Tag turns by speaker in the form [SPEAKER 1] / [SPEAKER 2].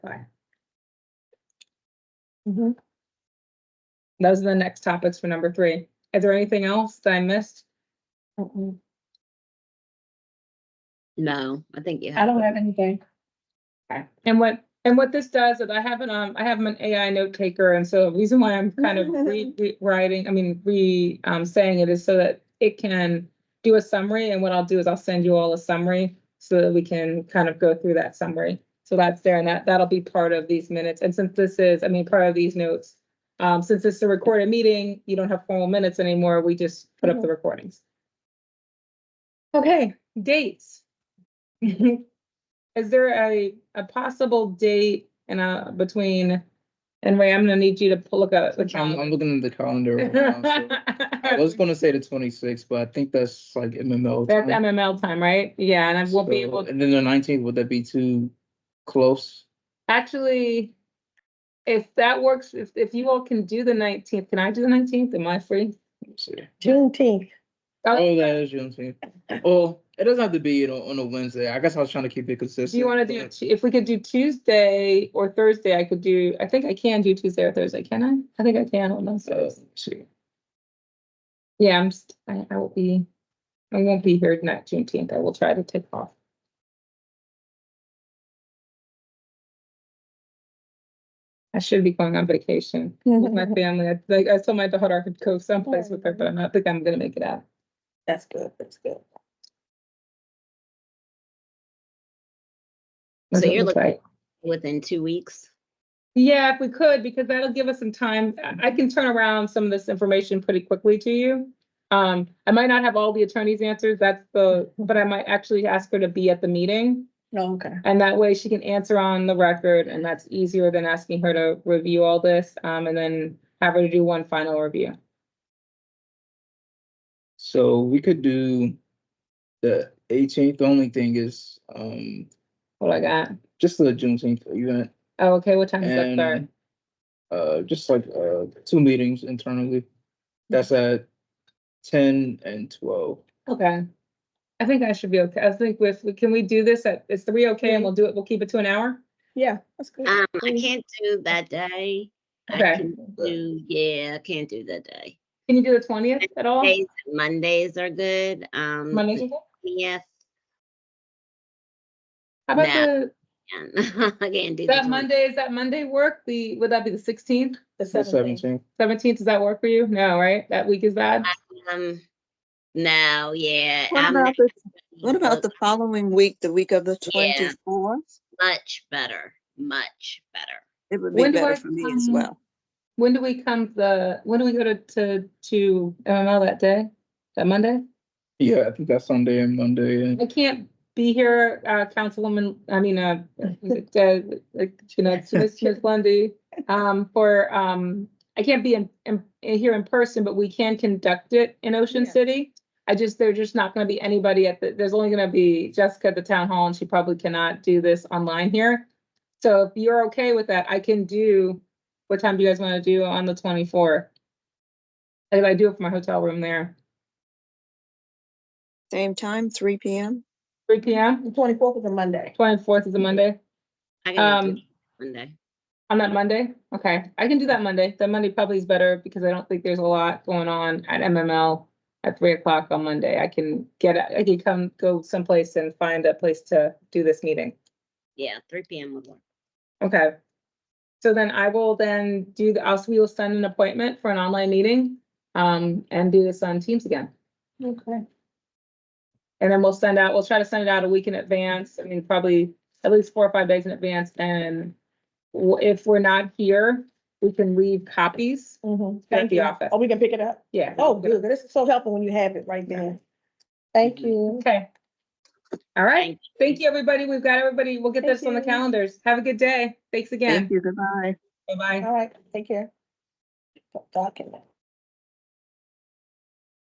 [SPEAKER 1] Mhm. Those are the next topics for number three. Is there anything else that I missed?
[SPEAKER 2] No, I think you
[SPEAKER 3] I
[SPEAKER 2] have.
[SPEAKER 3] don't have anything.
[SPEAKER 1] Okay. And what, and what this does is I have an, um, I have an AI note taker, and so the reason why I'm kind of re- rewriting, I mean, re, um, saying it is so that it can do a summary, and what I'll do is I'll send you all a summary so that we can kind of go through that summary. So that's there, and that, that'll be part of these minutes, and since this is, I mean, part of these notes, um, since this is a recorded meeting, you don't have formal minutes anymore, we just put up the
[SPEAKER 3] Mhm.
[SPEAKER 1] recordings. Okay, dates. Is there a, a possible date in uh between, and Ray, I'm gonna need you to pull- look up the
[SPEAKER 4] I'm,
[SPEAKER 1] calendar.
[SPEAKER 4] I'm looking at the calendar. right now, so- I was gonna say the twenty-sixth, but I think that's like MMO.
[SPEAKER 1] That's
[SPEAKER 4] time,
[SPEAKER 1] MML time, right? Yeah, and I won't be
[SPEAKER 4] so-
[SPEAKER 1] able,
[SPEAKER 4] And then the nineteenth, would that be too close?
[SPEAKER 1] actually, if that works, if, if you all can do the nineteenth, can I do the nineteenth? Am I free? Uh,
[SPEAKER 4] Let me see.
[SPEAKER 3] Juneteenth.
[SPEAKER 4] Oh, that is Juneteenth. Well, it doesn't have to be, you know, on a Wednesday. I guess I was trying to keep it consistent. uh,
[SPEAKER 1] Do you wanna do, Tu- if we could do Tuesday or Thursday, I could do, I think I can do Tuesday or Thursday, can I? I think I can, hold on,
[SPEAKER 4] but, uh,
[SPEAKER 1] so. Yeah, I'm, st- I, I will be, I won't be here not Juneteenth. I will try to take off. I should be going on vacation with my family. I, like, I told my daughter I could go someplace with her, but I don't think I'm gonna make it out.
[SPEAKER 3] That's good, that's good.
[SPEAKER 1] That's
[SPEAKER 2] So
[SPEAKER 1] what
[SPEAKER 2] you're
[SPEAKER 1] it looks
[SPEAKER 2] looking-
[SPEAKER 1] like.
[SPEAKER 2] Within two weeks.
[SPEAKER 1] Yeah, if we could, because that'll give us some time. I- I can turn around some of this information pretty quickly to you. Um, I might not have all the attorney's answers, that's the, but I might actually ask her to be at the meeting.
[SPEAKER 5] Oh,
[SPEAKER 3] No, okay.
[SPEAKER 1] And that way she can answer on the record and that's easier than asking her to review all this, um, and then have her to do one final review.
[SPEAKER 4] So we could do the eighteenth. The only thing is, um,
[SPEAKER 1] What do I got?
[SPEAKER 4] just the Juneteenth event.
[SPEAKER 1] Oh, okay, what time is that
[SPEAKER 4] and
[SPEAKER 1] start?
[SPEAKER 4] Uh, just like, uh, two meetings internally. That's at ten and twelve.
[SPEAKER 1] Okay. I think I should be okay. I think with, can we do this at, is three okay and we'll do it, we'll keep it to an hour?
[SPEAKER 3] Yeah, that's good.
[SPEAKER 2] Um, I can't do that day. I
[SPEAKER 1] Okay.
[SPEAKER 2] can do, yeah, I can't do that day.
[SPEAKER 1] Can you do the twentieth at all?
[SPEAKER 2] Days, Mondays are good, um.
[SPEAKER 1] Monday?
[SPEAKER 2] Yes.
[SPEAKER 1] How about
[SPEAKER 2] Nah.
[SPEAKER 1] the,
[SPEAKER 2] I can't do. the
[SPEAKER 1] that
[SPEAKER 2] 20.
[SPEAKER 1] Monday, is that Monday work? The, would that be the sixteenth?
[SPEAKER 3] The
[SPEAKER 4] The
[SPEAKER 3] seventeenth.
[SPEAKER 4] seventeenth.
[SPEAKER 1] Seventeenth, does that work for you? No, right? That week is bad?
[SPEAKER 2] Um, no, yeah.
[SPEAKER 5] What
[SPEAKER 2] I'm
[SPEAKER 5] about
[SPEAKER 2] not
[SPEAKER 5] the-
[SPEAKER 2] gonna
[SPEAKER 5] What about
[SPEAKER 2] look
[SPEAKER 5] the following week, the week of the
[SPEAKER 2] Yeah.
[SPEAKER 5] twenty-fourth?
[SPEAKER 2] Much better, much better.
[SPEAKER 5] It would
[SPEAKER 1] When
[SPEAKER 5] be
[SPEAKER 1] do I
[SPEAKER 5] better for me as
[SPEAKER 1] come-
[SPEAKER 5] well.
[SPEAKER 1] When do we come the, when do we go to, to, to MML that day? That Monday?
[SPEAKER 4] Yeah, I think that's Sunday and Monday and
[SPEAKER 1] I can't be here, uh, Councilwoman, I mean, uh, is it, uh, like, you know, it's Ms. Ms. Lundy, um, for, um, I can't be in, in, in here in person, but we can conduct it in Ocean
[SPEAKER 3] Yeah.
[SPEAKER 1] City. I just, there's just not gonna be anybody at the, there's only gonna be Jessica at the town hall, and she probably cannot do this online here. So if you're okay with that, I can do, what time do you guys wanna do on the twenty-fourth? If I do it from my hotel room there,
[SPEAKER 5] Same time, three P M.
[SPEAKER 1] three P M,
[SPEAKER 3] The twenty-fourth is a Monday.
[SPEAKER 1] twenty-fourth is a Monday.
[SPEAKER 2] I can do
[SPEAKER 1] Um,
[SPEAKER 2] it Monday.
[SPEAKER 1] On that Monday? Okay, I can do that Monday. That Monday probably is better because I don't think there's a lot going on at MML at three o'clock on Monday. I can get, I can come, go someplace and find a place to do this meeting.
[SPEAKER 2] Yeah, three P M would work.
[SPEAKER 1] Okay. So then I will then do, the. also we will send an appointment for an online meeting um, and do this on Teams again.
[SPEAKER 3] Okay.
[SPEAKER 1] And then we'll send out, we'll try to send it out a week in advance. I mean, probably at least four or five days in advance. And w- if we're not here, we can leave copies
[SPEAKER 3] Mhm.
[SPEAKER 1] the
[SPEAKER 3] Thank you.
[SPEAKER 1] office.
[SPEAKER 3] Oh, we can pick it up?
[SPEAKER 1] Yeah.
[SPEAKER 3] Oh, good. This is so helpful when you have it right there. Thank you.
[SPEAKER 1] Okay. All right.
[SPEAKER 2] Thank
[SPEAKER 1] Thank you, everybody. We've got everybody. We'll get
[SPEAKER 3] Thank
[SPEAKER 1] this on the
[SPEAKER 3] you.
[SPEAKER 1] calendars. Have a good day. Thanks again.
[SPEAKER 5] Thank you, goodbye.
[SPEAKER 1] Bye-bye.
[SPEAKER 3] All right, take care. Document.